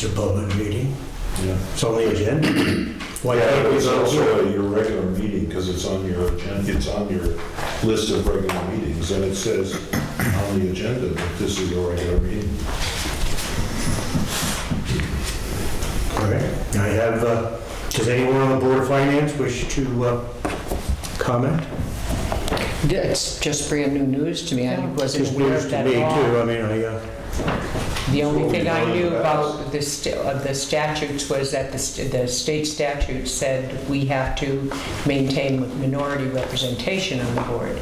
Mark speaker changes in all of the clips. Speaker 1: It's a public meeting,
Speaker 2: Yeah.
Speaker 1: it's on the agenda. Why
Speaker 2: Yeah,
Speaker 1: can't we
Speaker 2: it's
Speaker 1: go to
Speaker 2: also your regular meeting, because it's on your agenda, it's on your list of regular meetings, and it says on the agenda that this is a regular meeting.
Speaker 1: All right, I have, uh, does anyone on the Board of Finance wish to uh, comment?
Speaker 3: It's just brand new news to me. I wasn't
Speaker 1: Just
Speaker 3: aware
Speaker 1: news
Speaker 3: of
Speaker 1: to
Speaker 3: that
Speaker 1: me too,
Speaker 3: at all.
Speaker 1: I mean, I, uh,
Speaker 3: The only
Speaker 2: Well,
Speaker 3: thing I
Speaker 2: we
Speaker 3: knew
Speaker 2: learned
Speaker 3: about the st- of the statutes was that the st- the state statute said we have to maintain minority representation on the board.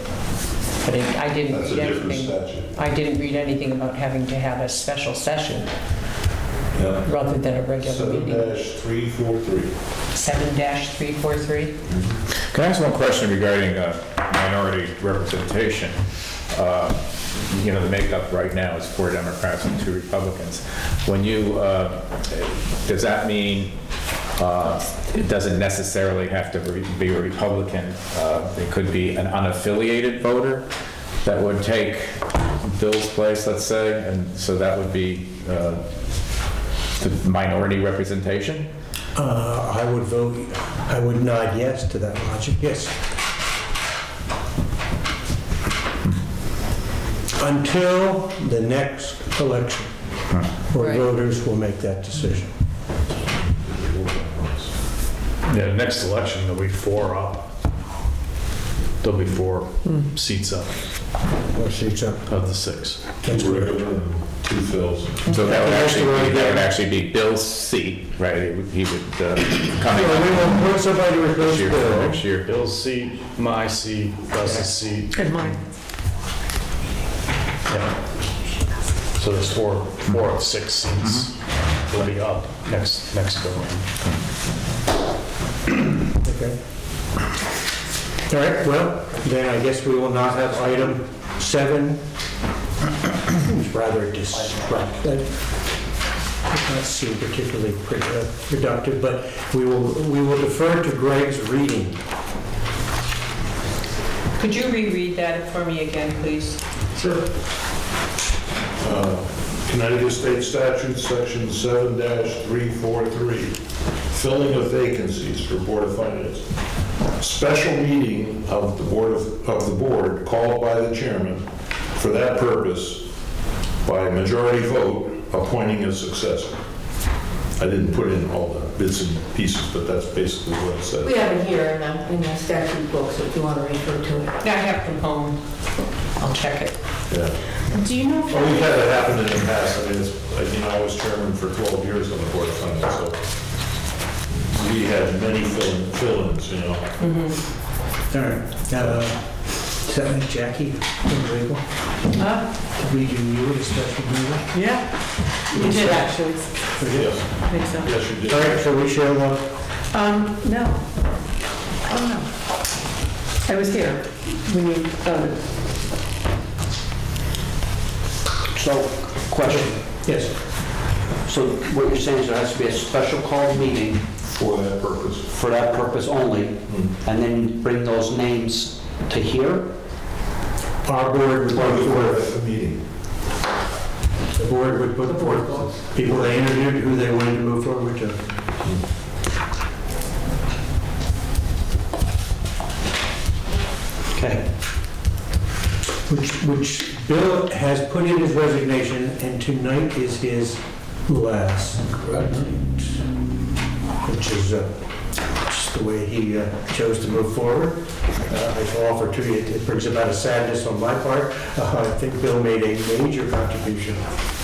Speaker 3: But it- I didn't
Speaker 2: That's a
Speaker 3: read
Speaker 2: different
Speaker 3: anything,
Speaker 2: statute.
Speaker 3: I didn't read anything about having to have a special session
Speaker 2: Yeah.
Speaker 3: rather than a regular
Speaker 2: Seven
Speaker 3: meeting.
Speaker 2: dash three four three.
Speaker 3: 7-343?
Speaker 4: Can I ask one question regarding uh, minority representation? Uh, You know, the makeup right now is four Democrats and two Republicans. When you, uh, does that mean uh, it doesn't necessarily have to re- be a Republican? Uh, It could be an unaffiliated voter that would take Bill's place, let's say, and so that would be uh, the minority representation?
Speaker 1: uh, I would vote, I would nod yes to that logic, yes. Until the next election, where
Speaker 3: Right.
Speaker 1: voters will make that decision.
Speaker 5: Yeah, next election, there'll be four up. There'll be four seats up
Speaker 1: Or six up.
Speaker 5: of the six.
Speaker 1: That's
Speaker 2: Two
Speaker 1: correct.
Speaker 2: regular and two fills.
Speaker 4: So that would
Speaker 1: That's the way to
Speaker 4: actually, be-
Speaker 1: go.
Speaker 4: that would actually be Bill's seat, right? He would- he would uh, come
Speaker 1: So we
Speaker 4: in
Speaker 1: will put somebody to
Speaker 4: this
Speaker 1: replace
Speaker 4: year for
Speaker 1: Bill.
Speaker 4: next year.
Speaker 5: Bill's seat, my seat, Gus's seat,
Speaker 3: Good morning.
Speaker 5: yeah. So there's four, four of six seats will be up next, next go round.
Speaker 1: Okay. All right, well, then I guess we will not have item seven. It's rather distracting. Does not seem particularly pr- uh, productive, but we will, we will defer to Greg's reading.
Speaker 3: Could you reread that for me again, please?
Speaker 2: Sure. Uh, Connecticut State Statute, Section 7-343, filling of vacancies for Board of Finance. Special meeting of the Board of, of the Board called by the chairman for that purpose by majority vote appointing a successor. I didn't put in all the bits and pieces, but that's basically what it says.
Speaker 6: We have it here in the, in the statute book, so if you want to refer to it.
Speaker 3: I have from home. I'll check it.
Speaker 2: Yeah.
Speaker 6: Do you know?
Speaker 2: Well, we've had that happen in the past, I mean, it's, like, you know, I was chairman for 12 years on the board of finance, so we had many fill- fill-ins, you know.
Speaker 1: All right. uh, Seven, Jackie, legal.
Speaker 3: Huh?
Speaker 1: We do you a special meeting.
Speaker 3: Yeah. You did, actually.
Speaker 2: Yes,
Speaker 3: I think so.
Speaker 2: yes, you did.
Speaker 1: All right, so we shall, uh,
Speaker 6: Um, no. Oh, no. I was here when you voted.
Speaker 7: So, question,
Speaker 1: yes.
Speaker 7: so what you're saying is there has to be a special call meeting
Speaker 2: For that purpose.
Speaker 7: for that purpose only,
Speaker 2: Mm-hmm.
Speaker 7: and then bring those names to here?
Speaker 1: Our board would put
Speaker 2: Or the board
Speaker 1: forth,
Speaker 2: at the meeting.
Speaker 1: the board would put forth people they interviewed, who they wanted to move forward to.
Speaker 7: Okay,
Speaker 1: Which, which Bill has put in his resignation, and tonight is his last. Correct. Which is uh, just the way he uh, chose to move forward. Uh, I offer to you, it brings about a sadness on my part. Uh, I think Bill made a major contribution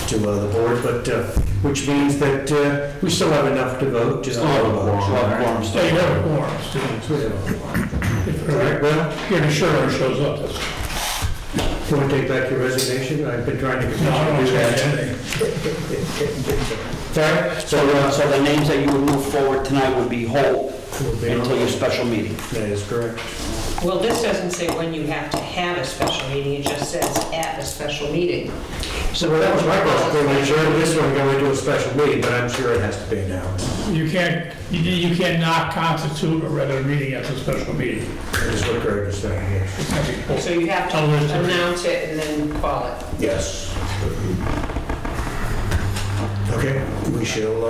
Speaker 1: to uh, the board, but, uh, which means that uh, we still have enough to vote, just.
Speaker 7: Oh, of course, of course.
Speaker 1: They have quorums, too. All right, well, you're sure it shows up. Do you want to take back your resignation? I've been trying to. No, I don't Sorry?
Speaker 7: so, uh, so the names that you would move forward tonight would be whole until your special meeting?
Speaker 1: That is correct.
Speaker 3: Well, this doesn't say when you have to have a special meeting, it just says at a special meeting.
Speaker 1: So well, that was my question, I'm sure this one going to a special meeting, but I'm sure it has to be now.
Speaker 8: You can't, you- you cannot constitute a regular meeting as a special meeting.
Speaker 1: That is what Greg is saying, yes.
Speaker 3: So you have to
Speaker 8: Unless there-
Speaker 3: announce it and then call it.
Speaker 1: Yes. Okay, we shall, uh,